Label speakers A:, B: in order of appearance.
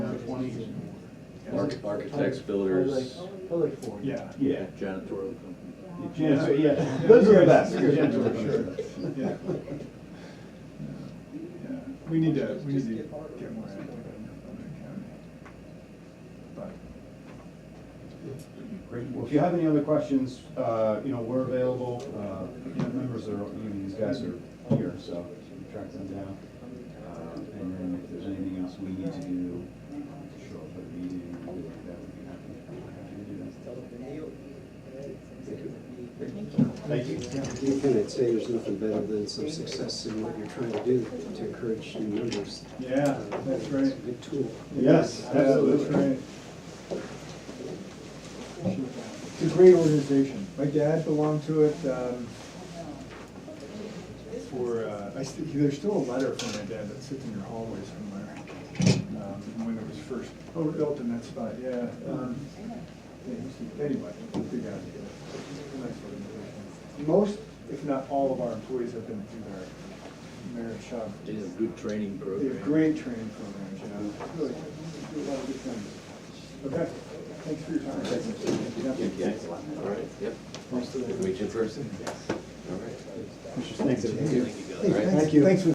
A: Arch- Architects, builders,
B: Public- Public forum.
C: Yeah,
D: Yeah.
A: janitorial company.
D: Yeah, so, yeah,
C: Yeah.
D: those are the best.
C: Yeah. yeah. Yeah, We need to, we need to get more active on on the county. But,
D: Great. Well, if you have any other questions, uh, you know, we're available, uh, you know, members are, you know, these guys are here, so you can track them down. Uh, And then if there's anything else we need to do to show up at the meeting, that would be happy, happy to do that. Thank you.
E: You can say there's nothing better than some success in what you're trying to do to encourage new members.
C: yeah, that's
E: It's
C: right.
E: a good tool.
D: Yes, absolutely.
C: That's right. It's a great organization. My dad belonged to it, um, for, uh, I st there's still a letter from my dad that sits in your hallway somewhere. Um, from when it was first, oh, built in that spot, yeah. um, yeah, he's- Anyway, good guy. Nice organization. Most, if not all of our employees have been through their merit shop.
A: They have good training
C: They
A: program.
C: have great training programs, you know, really, do a lot of good things. Okay, thanks for your time.
F: Yeah, all right, yep.
C: Thanks for the-
F: Meet you in person? Yes. All right.
D: Thanks.
F: Thank you, guys.
C: Thanks for